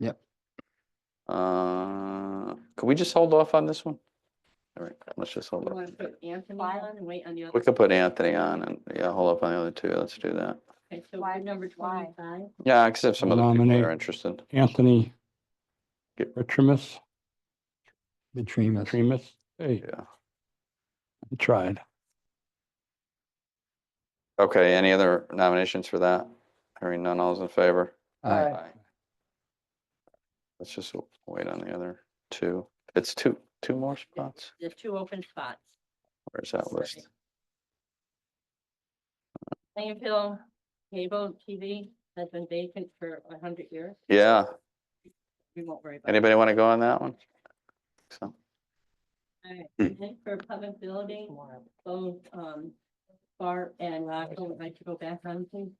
Yep. Uh, could we just hold off on this one? All right, let's just hold You off. want to put Anthony on and wait on the other? We could put Anthony on and, yeah, hold up on the other two. Let's do that. Okay, so Why- we're number why? twenty-five. Yeah, except some of the people that are Nominate. interested. Anthony Get- Richimus, Betraying us. Remus, hey, Yeah. I tried. Okay, any other nominations for that? Hearing none, all's in favor? Aye. Aye. Let's just wait on the other two. It's two, two more spots. There's two open spots. Where's that list? Plainfield cable TV has been vacant for a hundred years. Yeah, We won't worry about it. anybody want to go on that one? So, Alright, Hmm. and then For public building, both um Bart and Rocco would like to go back on please.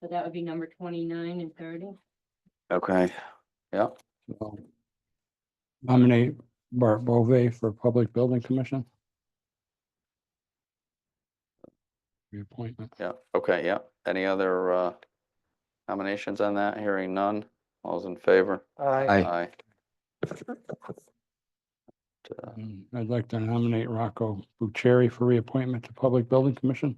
So that would be number twenty-nine and thirty. okay, yeah, So, Nominate Bart Bove for Public Building Commission. Reappointment. yeah, okay, yeah. Any other uh nominations on that? Hearing none, all's in favor? Aye. Aye. Uh, Um, I'd like to nominate Rocco Bucieri for reappointment to Public Building Commission.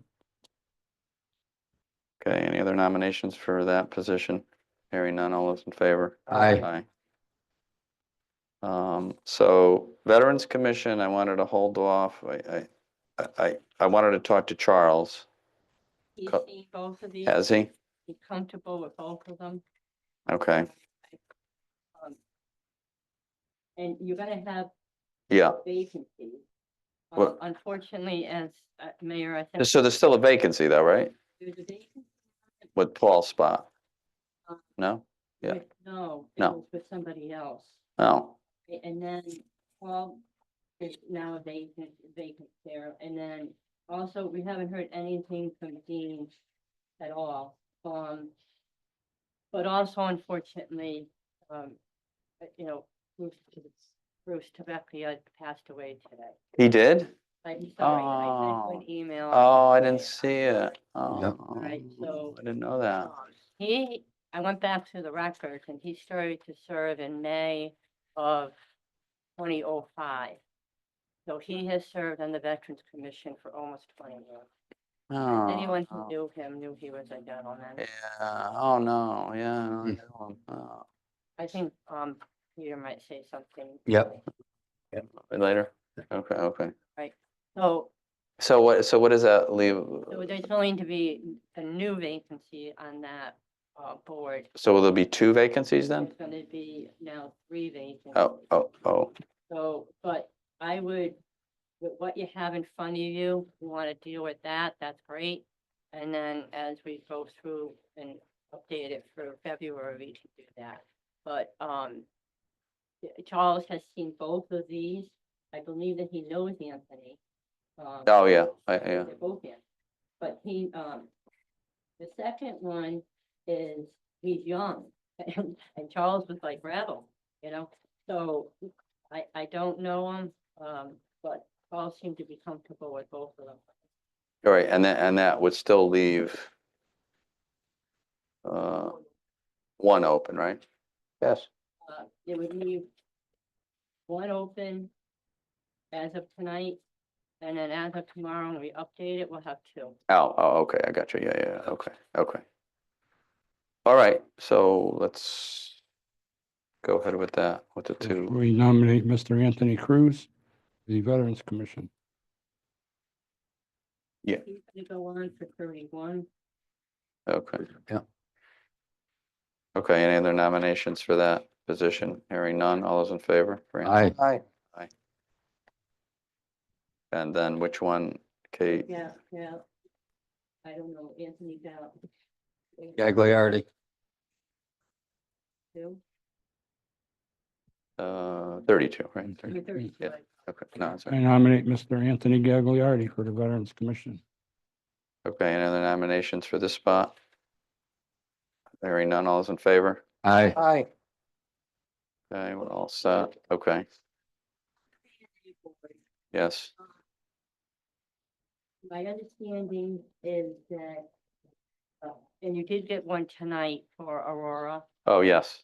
Okay, any other nominations for that position? Hearing none, all those in favor? Aye. Aye. Um, so Veterans Commission, I wanted to hold off, I, I- I, I, I wanted to talk to Charles, He's Co- seen both of these. has he? He's comfortable with both of them. Okay, um, And you're gonna have yeah, vacancies. What- Um, Unfortunately, as uh, mayor, I think. so there's still a vacancy though, right? there's a vacancy. With Paul's spot? No? Yeah. Wait, No. it No. was With somebody else. No, A- And then, well, there's now a vacant, vacant there. And then also, we haven't heard anything from Dean at all. Um, but also unfortunately, um, uh, you know, Bruce, Bruce Tabecchia passed away today. he did? I'm sorry, I sent you an email. Oh, I didn't see it. Yep. Oh, Right, so- I didn't know that. Um, He, I went back to the records and he started to serve in May of twenty oh five. So he has served on the Veterans Commission for almost twenty years. Anyone who Oh. knew him knew he was a gentleman. Yeah, oh no, yeah. no, I Hmm. know him. Oh. I think, um, Peter might say something. Yep. Later, okay, okay. So So what, so what does that leave? so there's going to be a new vacancy on that, uh, board. So will there be two vacancies then? There's gonna be now three vacancies. Oh, oh, oh, So, but I would, with what you have in front of you, you want to deal with that, that's great. And then as we go through and update it for February, we can do that. But, um, yeah, Charles has seen both of these. I believe that he knows Anthony. um, oh, yeah, I- I yeah, think They're both in. But he, um, the second one is, he's young, and Charles was like rattled, you know? So I, I don't know him, um, but Paul seemed to be comfortable with both of them. all right, and that, and that would still leave uh, one open, right? Yes. Uh, It would leave one open as of tonight, and then as of tomorrow, when we update it, we'll have two. Oh, oh, okay, I got you, yeah, yeah, yeah, okay, okay. All right, so let's go ahead with that, with the two. We nominate Mr. Anthony Cruz, the Veterans Commission. He's gonna go on for thirty-one. Okay. Mm-hmm. Yeah. Okay, any other nominations for that position? Hearing none, all those in favor? Fran? Aye. Aye. And then which one, Kate? Yeah, yeah. I don't know, Anthony Bell. Gagliardi. Two? Uh, thirty-two, right? Mm-hmm. Mm. You're thirty, yeah. right. Okay, no, I sorry. nominate Mr. Anthony Gagliardi for the Veterans Commission. Okay, any other nominations for this spot? Hearing none, all those in favor? Aye. Aye. Okay, we're all set. Okay, yes. My understanding is that, uh, and you did get one tonight for Aurora, Oh, yes,